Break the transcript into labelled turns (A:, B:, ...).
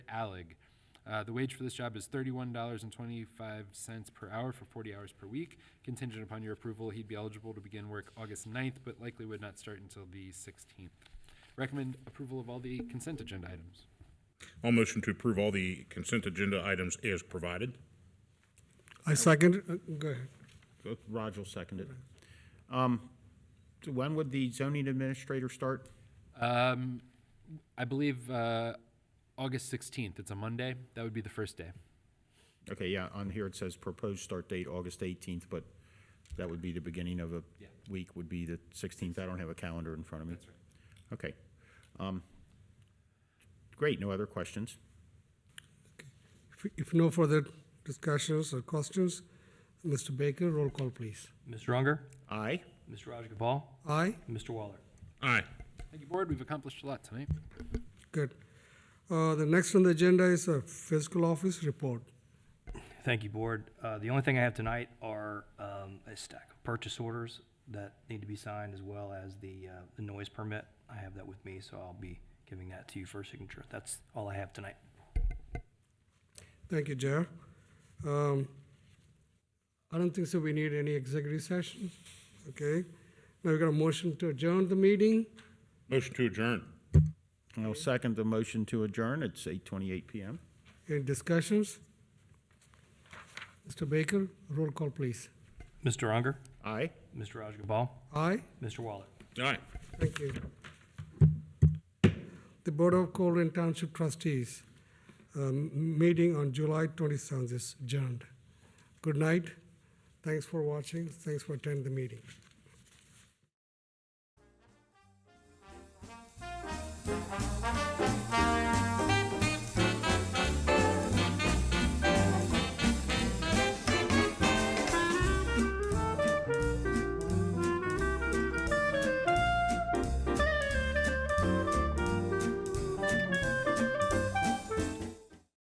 A: Allig. Uh, The wage for this job is thirty-one dollars and twenty-five cents per hour for forty hours per week. Contingent upon your approval, he'd be eligible to begin work August 9th, but likely would not start until the sixteenth. Recommend approval of all the consent agenda items.
B: I'll motion to approve all the consent agenda items as provided.
C: I second, uh, go ahead.
D: Roger will second it. Um, so When would the zoning administrator start?
A: Um, I believe uh, August sixteenth. It's a Monday. That would be the first day.
D: Okay, yeah, on here it says proposed start date, August 18th, but that would be the beginning of a
A: Yeah.
D: week, would be the 16th. I don't have a calendar in front of me. That's right. Okay. Um, Great, no other questions?
C: If- If no further discussions or questions, Mr. Baker, roll call, please.
E: Mr. Unger,
D: Aye?
E: Mr. Rajagopal,
C: Aye?
E: Mr. Waller.
B: Aye.
A: Thank you, board. We've accomplished a lot tonight.
C: Good. Uh, The next on the agenda is a fiscal office report.
E: Thank you, Board. Uh, The only thing I have tonight are um, a stack of purchase orders that need to be signed, as well as the uh, the noise permit. I have that with me, so I'll be giving that to you for signature. That's all I have tonight.
C: Thank you, Jer. Um, I don't think so we need any executive session, okay? Now we got a motion to adjourn the meeting.
B: Motion to adjourn.
D: I'll second the motion to adjourn. It's 8:28 PM.
C: Any discussions? Mr. Baker, roll call, please.
E: Mr. Unger,
D: Aye?
E: Mr. Rajagopal,
C: Aye?
E: Mr. Waller.
B: Aye.
C: Thank you. The Board of Colerain Township Trustees, um, meeting on July 27th is adjourned. Good night. Thanks for watching. Thanks for attending the meeting.